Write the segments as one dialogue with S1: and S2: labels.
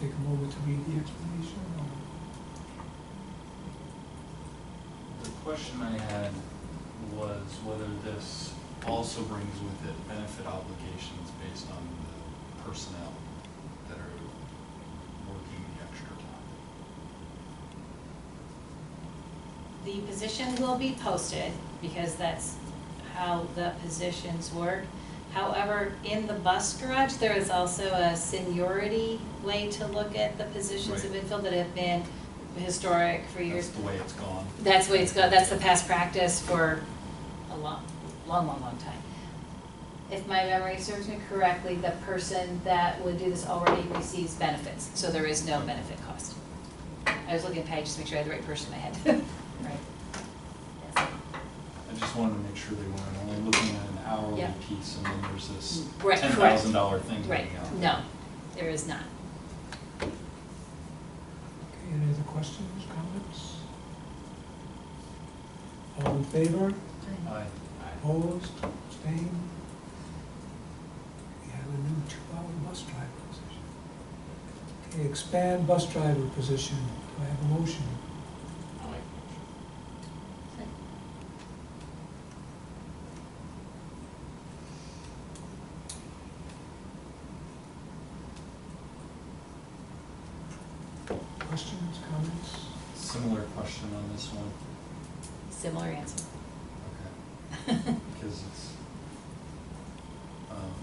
S1: take a moment to read the explanation? or-
S2: The question I had was whether this also brings with it benefit obligations based on the personnel that are working the extra time.
S3: The position will be posted, because that's how the positions work. However, in the bus garage, there is also a seniority way to look at the positions of
S2: Right.
S3: infill that have been historic for
S2: That's
S3: years.
S2: the way it's gone.
S3: That's the way it's go, that's the past practice for a long, long, long, long time. If my memory serves me correctly, the person that would do this already receives benefits, so there is no benefit cost. I was looking at Paige to make sure I had the right person in my head. Right.
S2: I just wanted to make sure they weren't only looking at an hourly
S3: Yeah.
S2: piece and then there's this
S3: Right,
S2: ten
S3: correct.
S2: thousand dollar thing
S3: Right,
S2: going on.
S3: no, there is not.
S1: Okay, any other questions, comments? All in favor?
S2: Aye.
S1: Opposed, abstained? We have a new two-hour bus driver position. Okay, expand bus driver position, do I have a motion? Questions, comments?
S2: Similar question on this one.
S3: Similar answer.
S2: Okay. because it's, um,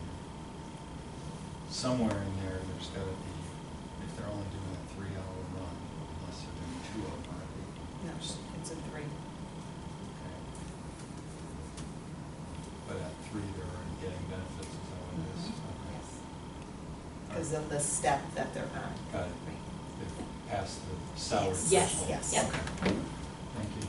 S2: somewhere in there, there's gotta be, if they're only doing a three-hour run, unless they're doing two of them, right?
S4: No, it's a three.
S2: Okay. But at three, they're already getting benefits, is that what it is? Okay.
S4: Mm-hmm. Because of the step that they're on.
S2: Got it, they passed the salary
S4: Yes.
S2: threshold.
S3: Yes,
S4: yes.
S3: Yep.
S2: Okay. Thank you.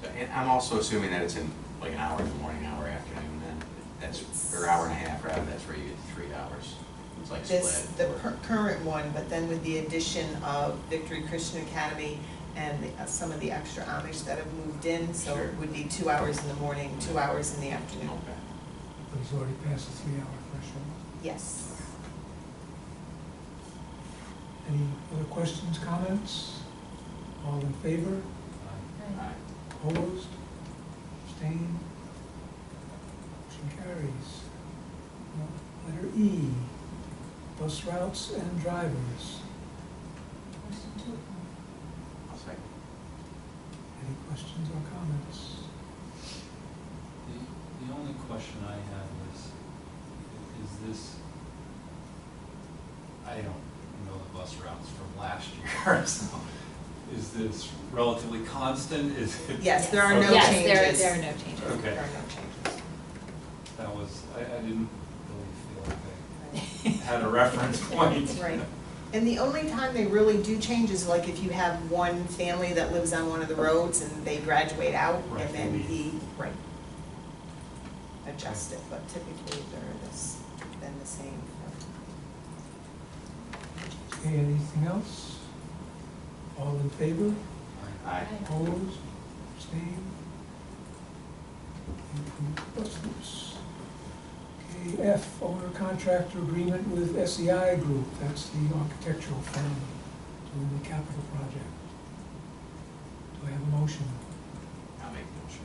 S5: So, And I'm also assuming that it's in like an hour in the morning, hour afternoon, then, that's, or hour and a half, rather, that's where you get three hours. It's like
S4: This, the
S5: split.
S4: cur- current one, but then with the addition of Victory Christian Academy and the- uh, some of the extra Amish that have moved in, so
S5: Sure.
S4: it would be two hours in the morning, two hours in the afternoon.
S5: Okay.
S1: But he's already passed the three-hour threshold.
S4: Yes.
S1: Any other questions, comments? All in favor?
S2: Aye.
S5: Aye.
S1: Opposed? Abstained? Motion carries. Now, Letter E, bus routes and drivers.
S5: I'll second.
S1: Any questions or comments?
S2: The, the only question I had was, i- is this, I don't know the bus routes from last year, so is this relatively constant? Is it?
S4: Yes, there are no changes.
S3: Yes, there, there are no changes.
S2: Okay.
S4: There are no changes.
S2: That was, I, I didn't really feel like they had a reference point.
S4: Right. And the only time they really do change is like if you have one family that lives on one of the roads and they graduate out
S2: Right,
S4: and then
S2: they
S4: he,
S2: leave.
S4: right. Adjust it, but typically they're this, then the same.
S1: Okay, anything else? All in favor?
S2: Aye.
S5: Aye.
S1: Opposed? Abstained? Approved bus routes. Okay, F, owner contractor agreement with SEI Group, that's the architectural firm doing the capital project. Do I have a motion?
S5: I'll make the motion.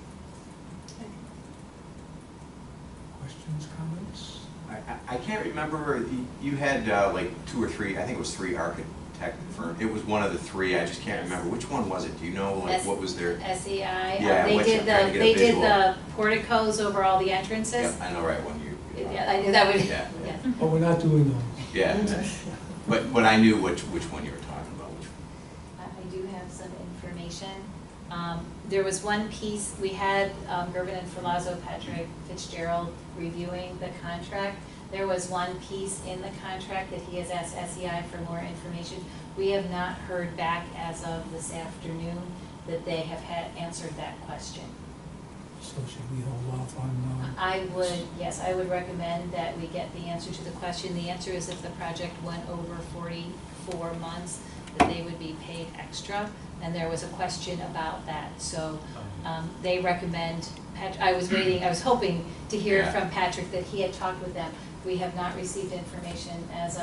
S1: Questions, comments?
S5: I, I, I can't remember, you, you had uh, like two or three, I think it was three architect firm, it was one of the three, I just can't remember, which one was it? Do you know, Oh, like,
S3: Yes.
S5: what was their?
S3: SEI,
S5: Yeah,
S3: uh, they
S5: what's
S3: did
S5: it- trying
S3: the,
S5: to get a
S3: they did
S5: visual.
S3: the porticos over all the entrances.
S5: Yep, I know, right, one you.
S3: Yeah, I knew that would, yeah.
S5: Yeah.
S1: Oh, we're not doing those.
S5: Yeah, but, but I knew which, which one you were talking about, which
S3: I I do have some information. Um, There was one piece, we had um, Gervin and Filazzo, Patrick Fitzgerald reviewing the contract. There was one piece in the contract that he has asked SEI for more information. We have not heard back as of this afternoon that they have had answered that question.
S1: So should we hold off on, uh,
S3: I would, yes, I would recommend that we get the answer to the question. The answer is if the project went over forty-four months, that they would be paid extra. And there was a question about that, so,
S2: Um,
S3: um, they recommend, Pat, I was waiting, I was hoping to hear
S5: Yeah.
S3: from Patrick that he had talked with them. We have not received information as